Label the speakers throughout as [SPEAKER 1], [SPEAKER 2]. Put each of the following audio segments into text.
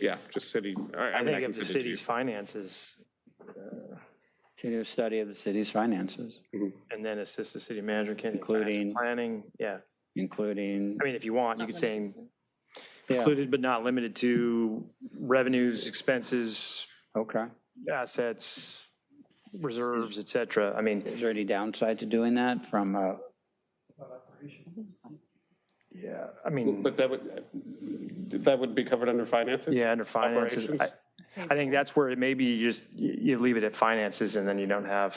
[SPEAKER 1] Yeah, just city. I
[SPEAKER 2] I
[SPEAKER 1] mean,
[SPEAKER 2] think
[SPEAKER 1] can
[SPEAKER 2] if the
[SPEAKER 1] send it to you.
[SPEAKER 2] city's finances,
[SPEAKER 3] To do a study of the city's finances,
[SPEAKER 2] and then assist the city manager, can,
[SPEAKER 3] Including-
[SPEAKER 2] including planning, yeah.
[SPEAKER 3] including,
[SPEAKER 2] I mean, if you want, you could say
[SPEAKER 3] yeah,
[SPEAKER 2] included but not limited to revenues, expenses,
[SPEAKER 3] okay.
[SPEAKER 2] assets, reserves, et cetera. I mean,
[SPEAKER 3] Is there any downside to doing that from, uh,
[SPEAKER 2] yeah, I mean,
[SPEAKER 1] But that would, that would be covered under finances?
[SPEAKER 2] yeah, under finances. I,
[SPEAKER 1] Operations?
[SPEAKER 2] I think that's where it maybe you just, you you leave it at finances and then you don't have,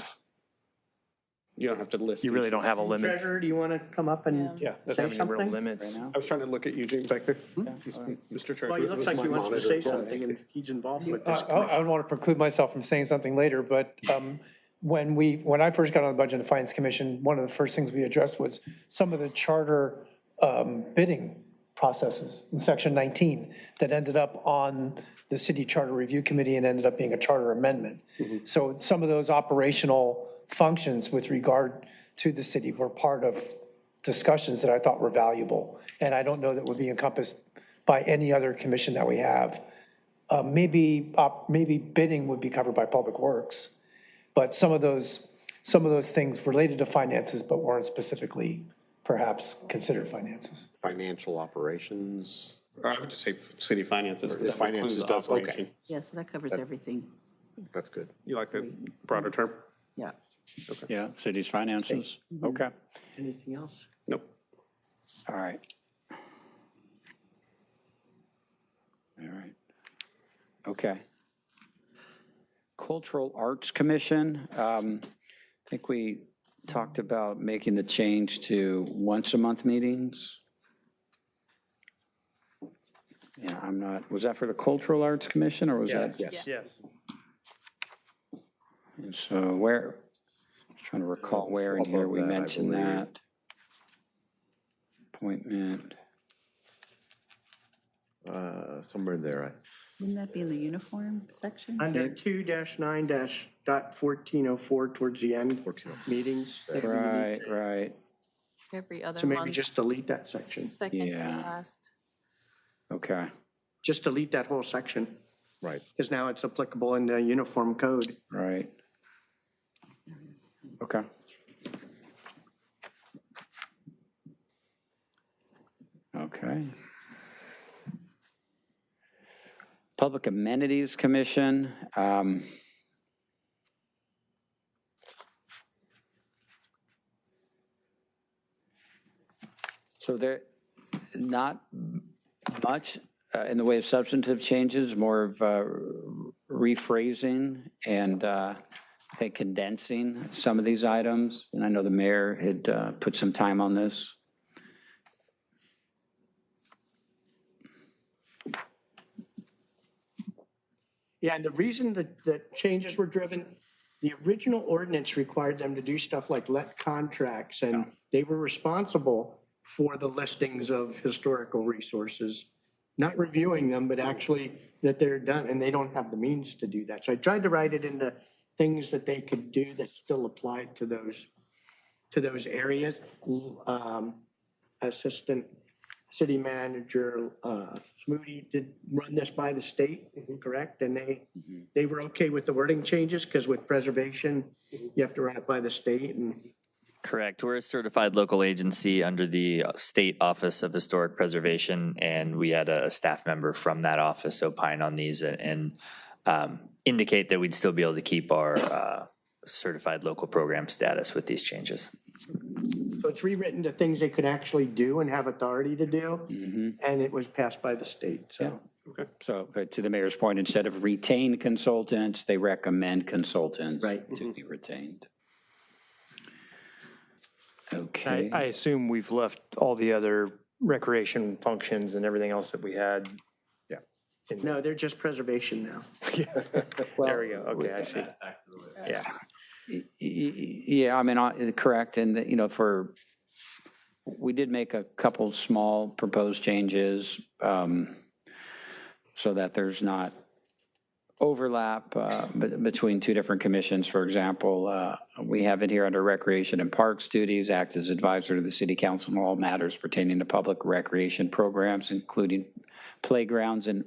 [SPEAKER 1] You don't have to list.
[SPEAKER 2] you really don't have a limit.
[SPEAKER 4] Treasurer, do you want to come up and
[SPEAKER 1] Yeah, that's,
[SPEAKER 4] say
[SPEAKER 1] I
[SPEAKER 2] Have any real
[SPEAKER 4] something?
[SPEAKER 2] limits.
[SPEAKER 3] right now?
[SPEAKER 1] was trying to look at Eugene back there. Mr. Treasurer.
[SPEAKER 4] Hmm? Well, he looks like he wants to say something and he's involved with this
[SPEAKER 5] I- I
[SPEAKER 4] commission.
[SPEAKER 5] don't want to preclude myself from saying something later, but um, when we, when I first got on the Budget and Finance Commission, one of the first things we addressed was some of the charter um, bidding processes in Section 19 that ended up on the City Charter Review Committee and ended up being a charter amendment.
[SPEAKER 4] Mm-hmm.
[SPEAKER 5] So some of those operational functions with regard to the city were part of discussions that I thought were valuable. And I don't know that would be encompassed by any other commission that we have. Uh, Maybe, op- maybe bidding would be covered by Public Works, but some of those, some of those things related to finances but weren't specifically perhaps considered finances.
[SPEAKER 6] financial operations.
[SPEAKER 1] Or I would just say city finances. 'cause
[SPEAKER 6] Or
[SPEAKER 1] that includes
[SPEAKER 6] finances
[SPEAKER 1] the
[SPEAKER 6] does, okay.
[SPEAKER 1] operation.
[SPEAKER 7] Yeah, so that covers everything.
[SPEAKER 6] That's good.
[SPEAKER 1] You like that broader term?
[SPEAKER 7] Yeah.
[SPEAKER 3] Yeah, city's finances, okay,
[SPEAKER 4] Anything else?
[SPEAKER 1] Nope.
[SPEAKER 3] all right. All right, okay. Cultural Arts Commission, um, I think we talked about making the change to once-a-month meetings. Yeah, I'm not, was that for the Cultural Arts Commission, or was that?
[SPEAKER 6] Yes.
[SPEAKER 2] Yes.
[SPEAKER 3] And so where, just trying to recall where in here
[SPEAKER 6] Above
[SPEAKER 3] we
[SPEAKER 6] that, I
[SPEAKER 3] mentioned
[SPEAKER 6] believe.
[SPEAKER 3] that. Appointment,
[SPEAKER 6] Uh, Somewhere in there. I-
[SPEAKER 7] Wouldn't that be in the uniform section?
[SPEAKER 4] Under two dash nine dash dot fourteen oh four towards the end,
[SPEAKER 6] 14.
[SPEAKER 4] meetings. maybe we need
[SPEAKER 3] right, right,
[SPEAKER 8] Every other
[SPEAKER 4] So maybe
[SPEAKER 8] month,
[SPEAKER 4] just delete that section.
[SPEAKER 8] second to
[SPEAKER 3] Yeah.
[SPEAKER 8] last.
[SPEAKER 3] okay,
[SPEAKER 4] Just delete that whole section
[SPEAKER 6] Right.
[SPEAKER 4] because now it's applicable in the uniform code.
[SPEAKER 3] right. Okay, okay. Public Amenities Commission, um, So there, not much uh, in the way of substantive changes, more of uh, rephrasing and uh, I think condensing some of these items. And I know the mayor had uh, put some time on this.
[SPEAKER 4] Yeah, and the reason that, that changes were driven, the original ordinance required them to do stuff like let contracts, and they were responsible for the listings of historical resources, not reviewing them, but actually that they're done, and they don't have the means to do that. So I tried to write it into things that they could do that still applied to those, to those areas. Um, Assistant city manager uh, Smoody did run this by the state, correct? And they, they were okay with the wording changes because with preservation, you have to run it by the state and
[SPEAKER 9] Correct. We're a certified local agency under the uh, State Office of Historic Preservation, and we had a staff member from that office opine on these and- and um, indicate that we'd still be able to keep our uh, certified local program status with these changes.
[SPEAKER 4] so it's rewritten to things they could actually do and have authority to do. And it was passed by the state, so.
[SPEAKER 3] So but to the mayor's point, instead of retain consultants, they recommend consultants. To be retained.
[SPEAKER 2] I,
[SPEAKER 3] Okay.
[SPEAKER 2] I assume we've left all the other recreation functions and everything else that we had.
[SPEAKER 4] No, they're just preservation now.
[SPEAKER 2] There we go. Okay, I see. Yeah.
[SPEAKER 3] Y- y- Yeah, I mean, I- correct, and, that, you know, for, we did make a couple small proposed changes um, so that there's not overlap uh, be- between two different commissions. For example, uh, we have it here under Recreation and Parks duties, act as advisor to the city council on all matters pertaining to public recreation programs, including playgrounds and